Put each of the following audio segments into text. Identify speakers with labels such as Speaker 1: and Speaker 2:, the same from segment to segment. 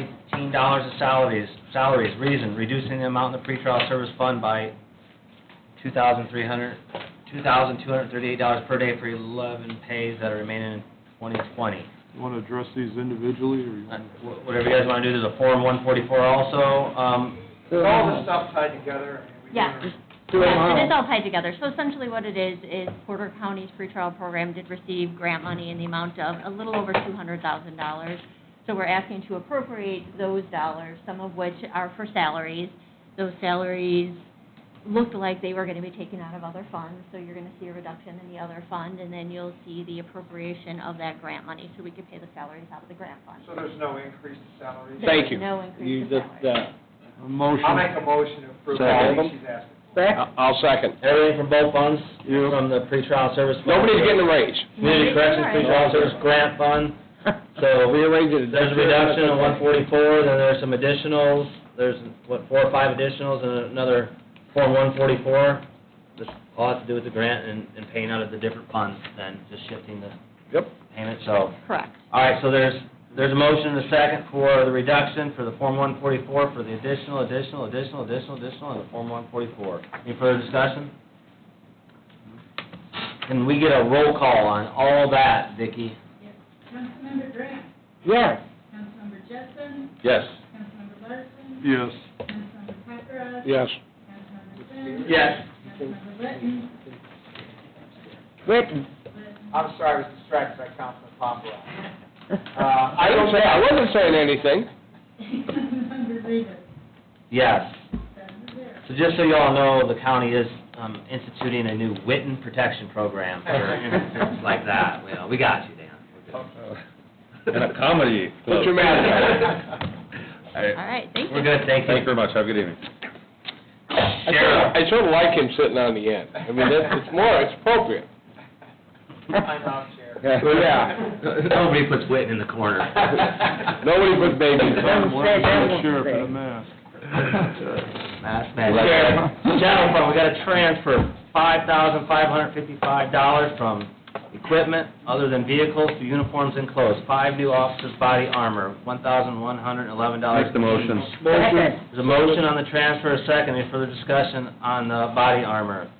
Speaker 1: eighteen dollars of salaries, salaries, reason, reducing the amount in the pretrial service fund by two thousand three hundred, two thousand two hundred thirty-eight dollars per day for eleven pays that are remaining in twenty twenty.
Speaker 2: You want to address these individually, or you
Speaker 1: Uh,
Speaker 2: want
Speaker 1: wh- Whatever you guys wanna do, there's a Form one forty-four also, um,
Speaker 3: It's all the stuff tied together. and we do
Speaker 4: Yeah.
Speaker 3: it-
Speaker 1: Oh,
Speaker 2: Do it
Speaker 4: Yes,
Speaker 2: now.
Speaker 4: it is all tied together. So essentially what it is, is Porter County's free trial program did receive grant money in the amount of a little over two hundred thousand dollars. So we're asking to appropriate those dollars, some of which are for salaries. Those salaries looked like they were gonna be taken out of other funds, so you're gonna see a reduction in the other fund, and then you'll see the appropriation of that grant money, so we could pay the salaries out of the grant fund.
Speaker 3: So there's no increase to salaries.
Speaker 4: Thank you. No increase
Speaker 5: You
Speaker 4: in
Speaker 5: just,
Speaker 4: salary.
Speaker 5: uh,
Speaker 2: a motion?
Speaker 3: I'll make a motion to approve
Speaker 5: Second.
Speaker 3: everything she's asking.
Speaker 5: I- I'll second.
Speaker 1: everything from both funds, from the pretrial service fund.
Speaker 5: Nobody's getting a raise.
Speaker 1: Community corrections pretrial service grant fund, so we
Speaker 5: We arranged it.
Speaker 1: There's a reduction of one forty-four, then there's some additionals, there's, what, four or five additionals, and another Form one forty-four. This all has to do with the grant and, and paying out of the different funds, then just shifting the
Speaker 5: Yep.
Speaker 1: payment, so.
Speaker 4: Correct.
Speaker 1: All right, so there's, there's a motion and a second for the reduction for the Form one forty-four, for the additional, additional, additional, additional, additional, and the Form one forty-four. Any further discussion? Can we get a roll call on all that, Vicki?
Speaker 6: Councilmember Grant,
Speaker 5: Yeah.
Speaker 6: Councilmember Jessen,
Speaker 5: Yes.
Speaker 6: Councilmember Larson,
Speaker 2: Yes.
Speaker 6: Councilmember Papera,
Speaker 5: Yes.
Speaker 6: Councilmember Finn,
Speaker 1: Yes.
Speaker 6: Councilmember Litton,
Speaker 1: Uh,
Speaker 5: Written.
Speaker 3: I'm sorry, I was distracted by Councilman Papalarz. Uh,
Speaker 5: I don't say, I wasn't saying anything.
Speaker 6: Councilmember Rivas,
Speaker 1: Yes.
Speaker 6: seven to zero.
Speaker 1: So just so you all know, the county is um, instituting a new Witten Protection Program for instances like that. Well, we got you, Dan. We're good.
Speaker 7: And a comedy club.
Speaker 5: Put your mask
Speaker 4: All right, thank you.
Speaker 1: We're good, thank
Speaker 7: Thank you
Speaker 1: you.
Speaker 7: very much, have a good evening.
Speaker 5: I sort of- I sort of like him sitting on the end. I mean, that's, it's more, it's appropriate.
Speaker 3: I'm out, Chair.
Speaker 5: Yeah.
Speaker 1: Nobody puts Witten in the corner.
Speaker 5: Nobody but babies.
Speaker 2: One sheriff in a mask.
Speaker 1: Mass magic. General fund, we got a transfer, five thousand five hundred fifty-five dollars from equipment other than vehicles to uniforms and clothes. Five new officers' body armor, one thousand one hundred eleven dollars.
Speaker 7: Make the motion.
Speaker 2: Motion.
Speaker 1: There's a motion on the transfer, a second, any further discussion on the body armor?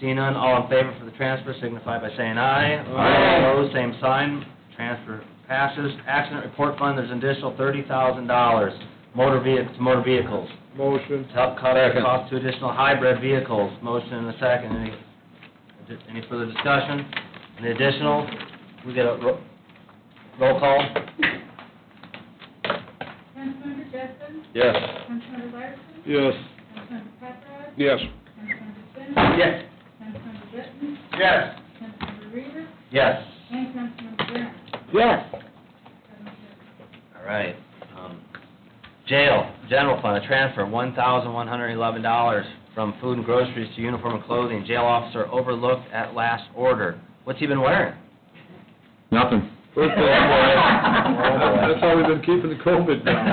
Speaker 1: Seeing none, all in favor for the transfer signify by saying aye.
Speaker 5: Aye.
Speaker 1: Opposed, same sign, transfer passes. Accident report fund, there's an additional thirty thousand dollars, motor vehicles, motor vehicles.
Speaker 2: Motion.
Speaker 1: To help cover the
Speaker 7: Second.
Speaker 1: cost to additional hybrid vehicles, motion and a second, any, any further discussion? Any additional? We get a ro- roll call?
Speaker 6: Councilmember Jessen,
Speaker 7: Yes.
Speaker 6: Councilmember Larson,
Speaker 2: Yes.
Speaker 6: Councilmember Papera,
Speaker 5: Yes.
Speaker 6: Councilmember Finn,
Speaker 1: Yes.
Speaker 6: Councilmember Litton,
Speaker 3: Yes.
Speaker 6: Councilmember Rivas,
Speaker 1: Yes.
Speaker 6: and Councilmember Grant,
Speaker 5: Yes.
Speaker 6: seven to zero.
Speaker 1: All right. Um, Jail, general fund, a transfer, one thousand one hundred eleven dollars from food and groceries to uniform and clothing. Jail officer overlooked at last order. What's he been wearing?
Speaker 7: Nothing.
Speaker 2: That's how we've been keeping the COVID down.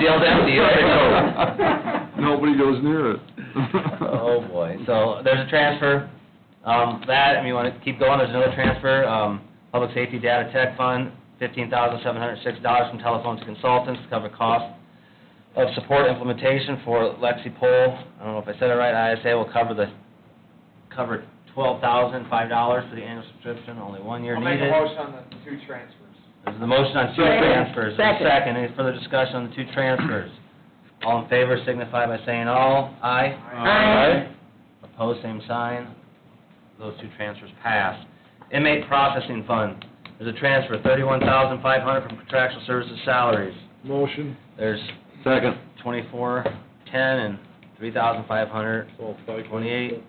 Speaker 1: Jail's empty, it's a
Speaker 2: Nobody goes near it. Uh,
Speaker 1: Oh, boy. So there's a transfer, um, that, and you want to keep going, there's another transfer, um, Public Safety Data Tech Fund, fifteen thousand seven hundred six dollars from telephones to consultants to cover cost of support implementation for Lexi Poll. I don't know if I said it right, ISA will cover the, cover twelve thousand five dollars for the annual subscription, only one year
Speaker 3: I'll
Speaker 1: needed.
Speaker 3: make a motion on the two transfers.
Speaker 1: There's the motion on two transfers, there's a second, any further discussion on the two transfers? All in favor signify by saying all, aye.
Speaker 2: Aye.
Speaker 1: Opposed, same sign. Those two transfers pass. Inmate processing fund, there's a transfer, thirty-one thousand five hundred from contractual services salaries.
Speaker 2: Motion.
Speaker 1: There's
Speaker 7: Second.
Speaker 1: twenty-four ten and three thousand five hundred
Speaker 2: So, like-
Speaker 1: twenty-eight.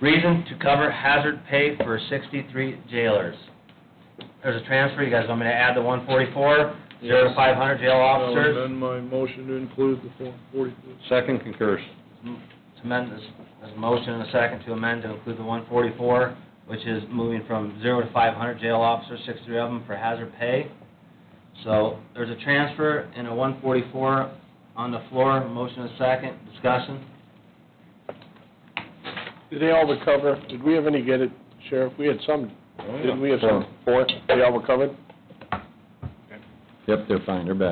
Speaker 1: Reason to cover hazard pay for sixty-three jailers. There's a transfer, you guys want me to add the one forty-four, zero to five hundred jail
Speaker 2: I'll
Speaker 1: officers?
Speaker 2: amend my motion to include the Form 44.
Speaker 7: Second concurs.
Speaker 1: to amend this, there's a motion and a second to amend to include the one forty-four, which is moving from zero to five hundred jail officers, sixty-three of them for hazard pay. So there's a transfer and a one forty-four on the floor, motion and a second, discussion.
Speaker 5: Did they all recover? Did we have any get it, Sheriff? We had some, did we have some? Four? They all recovered?
Speaker 7: Yep, they're fine, they're back.